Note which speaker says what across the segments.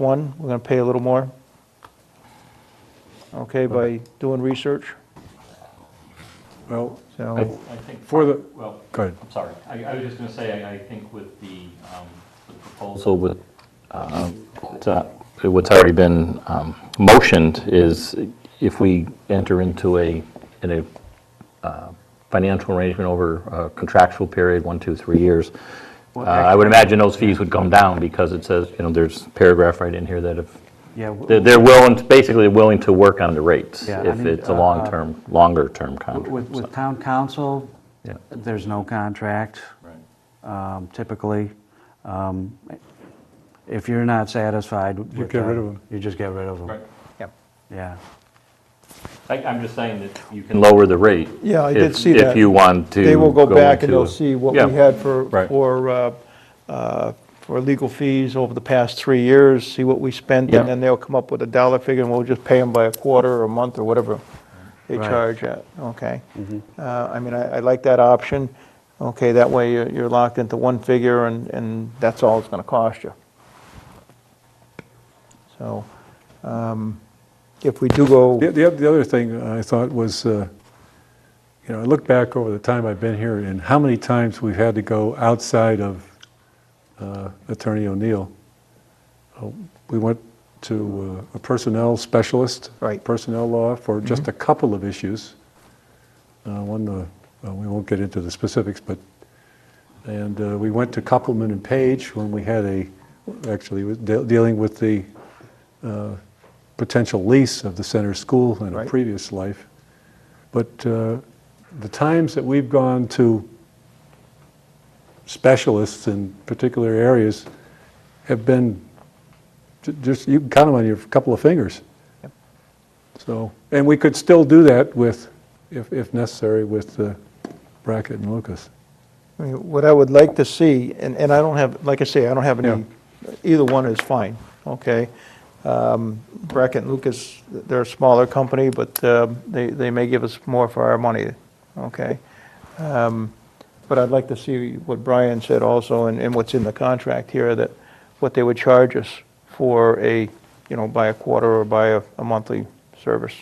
Speaker 1: one, we're going to pay a little more. Okay, by doing research,
Speaker 2: Well,
Speaker 1: so,
Speaker 3: I think,
Speaker 2: for the,
Speaker 3: well,
Speaker 2: go ahead.
Speaker 3: I'm sorry, I, I was just gonna say, I, I think with the, um, the proposal with, uh, to- what's already been, um, motioned is if we enter into a, in a, uh, financial arrangement over a contractual period, one, two, three years, uh, I would imagine those fees would come down because it says, you know, there's a paragraph right in here that if,
Speaker 4: Yeah.
Speaker 3: they're,
Speaker 4: w-
Speaker 3: they're willing, basically willing to work on the rates
Speaker 4: Yeah, I
Speaker 3: if
Speaker 4: mean,
Speaker 3: it's a
Speaker 4: uh, uh,
Speaker 3: long-term, longer-term contract.
Speaker 4: With, with
Speaker 3: so-
Speaker 4: town council,
Speaker 3: Yeah.
Speaker 4: there's no contract um, typically. Um, If you're not satisfied with
Speaker 2: You get rid of
Speaker 4: them,
Speaker 2: 'em.
Speaker 4: You just get rid of them.
Speaker 3: Right.
Speaker 1: yeah.
Speaker 4: Yeah.
Speaker 3: I- I'm just saying that you can lower the rate.
Speaker 1: Yeah, I did
Speaker 3: if-
Speaker 1: see that.
Speaker 3: If you want to.
Speaker 1: They will go back and
Speaker 3: into
Speaker 1: they'll
Speaker 3: a-
Speaker 1: see what
Speaker 3: Yeah.
Speaker 1: we had for,
Speaker 3: right.
Speaker 1: for, uh, uh, for legal fees over the past three years, see what we spent,
Speaker 3: Yeah.
Speaker 1: and then they'll come up with a dollar figure, and we'll just pay them by a quarter or a month or whatever they
Speaker 4: Right.
Speaker 1: charge at, okay?
Speaker 3: Mm-hmm.
Speaker 1: Uh, I mean, I, I like that option, okay, that way you're, you're locked into one figure and, and that's all it's gonna cost you. So, um, if we do go,
Speaker 2: The, the oth- the other thing I thought was, uh, you know, I look back over the time I've been here and how many times we've had to go outside of uh, Attorney O'Neill. Uh, We went to uh, a personnel specialist.
Speaker 1: Right.
Speaker 2: Personnel law for just a couple of issues. Uh, One, uh, well, we won't get into the specifics, but, and uh, we went to Copeland and Page when we had a, actually, was de- dealing with the uh, potential lease of the center school in a
Speaker 1: Right.
Speaker 2: previous life. But uh, the times that we've gone to specialists in particular areas have been ju- just, you can count them on your couple of fingers.
Speaker 1: Yep.
Speaker 2: So, and we could still do that with, if if necessary, with uh, Brackett and Lucas.
Speaker 1: I mean, What I would like to see, and, and I don't have, like I say, I don't have any, either one is fine, okay? Um, Brackett and Lucas, they're a smaller company, but um, they, they may give us more for our money, okay? Um, But I'd like to see what Brian said also, and, and what's in the contract here, that what they would charge us for a, you know, by a quarter or by a, a monthly service.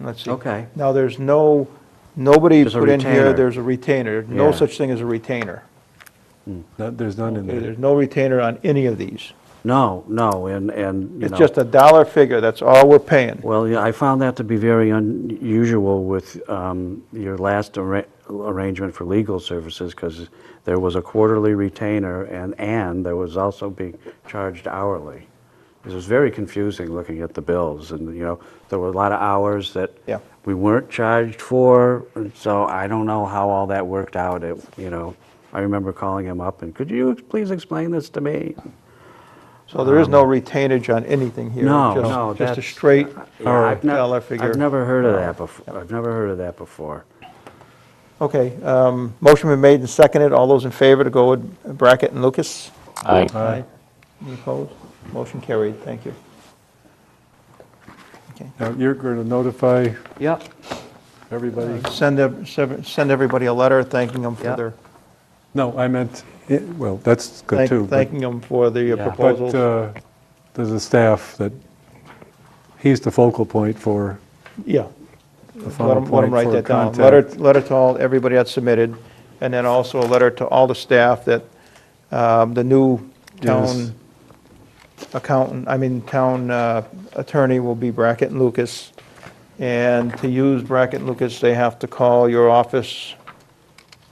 Speaker 1: Let's see.
Speaker 4: Okay.
Speaker 1: Now, there's no, nobody
Speaker 4: There's a
Speaker 1: put in here,
Speaker 4: retainer.
Speaker 1: there's a retainer. No
Speaker 4: Yeah.
Speaker 1: such thing as a retainer.
Speaker 2: Not- There's none in
Speaker 1: Okay, There's
Speaker 2: there.
Speaker 1: no retainer on any of these.
Speaker 4: No, no, and, and, you
Speaker 1: It's
Speaker 4: know.
Speaker 1: just a dollar figure, that's all we're paying.
Speaker 4: Well, yeah, I found that to be very unusual with um, your last arra- arrangement for legal services, because there was a quarterly retainer, and, and there was also being charged hourly. It was very confusing looking at the bills, and, you know, there were a lot of hours that
Speaker 1: Yeah.
Speaker 4: we weren't charged for, and so I don't know how all that worked out, It you know. I remember calling him up, and, could you ex- please explain this to me?
Speaker 1: So there is no retainage on anything here.
Speaker 4: No,
Speaker 1: just-
Speaker 4: no,
Speaker 1: Just a
Speaker 4: that's-
Speaker 1: straight
Speaker 4: Yeah, I've nev-
Speaker 1: dollar figure.
Speaker 4: I've never heard of that before, I've never heard of that before.
Speaker 1: Okay, um, motion been made and seconded, all those in favor to go with Brackett and Lucas?
Speaker 3: I-
Speaker 1: Aye. Any opposed? Motion carried, thank you. Okay.
Speaker 2: Now, you're going to notify
Speaker 4: Yep.
Speaker 2: everybody?
Speaker 1: Send, ev- sev- send everybody a letter thanking them for
Speaker 4: Yeah.
Speaker 1: their,
Speaker 2: No, I meant, it- well, that's good
Speaker 1: thank-
Speaker 2: too. but-
Speaker 1: thanking them for the uh,
Speaker 4: Yeah. But,
Speaker 1: proposals.
Speaker 2: But uh, there's a staff that, he's the focal point for
Speaker 1: Yeah.
Speaker 2: the
Speaker 1: Let
Speaker 2: final
Speaker 1: them, let
Speaker 2: point
Speaker 1: 'em write
Speaker 2: for
Speaker 1: that down. Letter,
Speaker 2: contact.
Speaker 1: letter to all, everybody that submitted, and then also a letter to all the staff that um, the new
Speaker 2: Yes.
Speaker 1: town accountant, I mean, town uh, attorney will be Brackett and Lucas. And to use Brackett and Lucas, they have to call your office,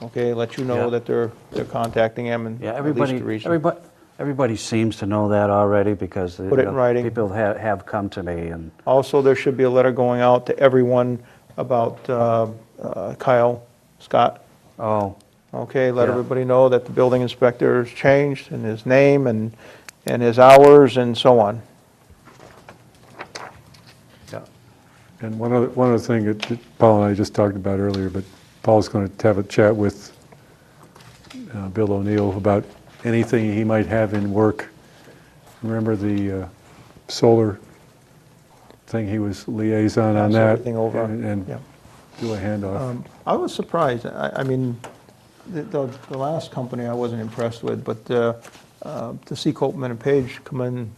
Speaker 1: okay, let you know
Speaker 4: Yeah.
Speaker 1: that they're, they're contacting them and
Speaker 4: Yeah,
Speaker 1: at least
Speaker 4: everybody,
Speaker 1: the reason.
Speaker 4: everybody, everybody seems to know that already because. you
Speaker 1: Put it in
Speaker 4: know,
Speaker 1: writing.
Speaker 4: People have, have come to me and,
Speaker 1: Also, there should be a letter going out to everyone about uh, uh, Kyle Scott.
Speaker 4: oh,
Speaker 1: Okay, let
Speaker 4: Yeah.
Speaker 1: everybody know that the building inspector has changed, and his name, and, and his hours, and so on.
Speaker 4: yeah,
Speaker 2: And one other, one other thing that that Paul and I just talked about earlier, but Paul's going to have a chat with uh, Bill O'Neill about anything he might have in work. Remember the uh, solar thing, he was liaison on
Speaker 1: Pass
Speaker 2: that?
Speaker 1: everything over,
Speaker 2: and-
Speaker 1: yeah.
Speaker 2: And do a handoff.
Speaker 1: Um, I was surprised, I, I mean, the, the the last company I wasn't impressed with, but uh, uh, to see Copman and Page come in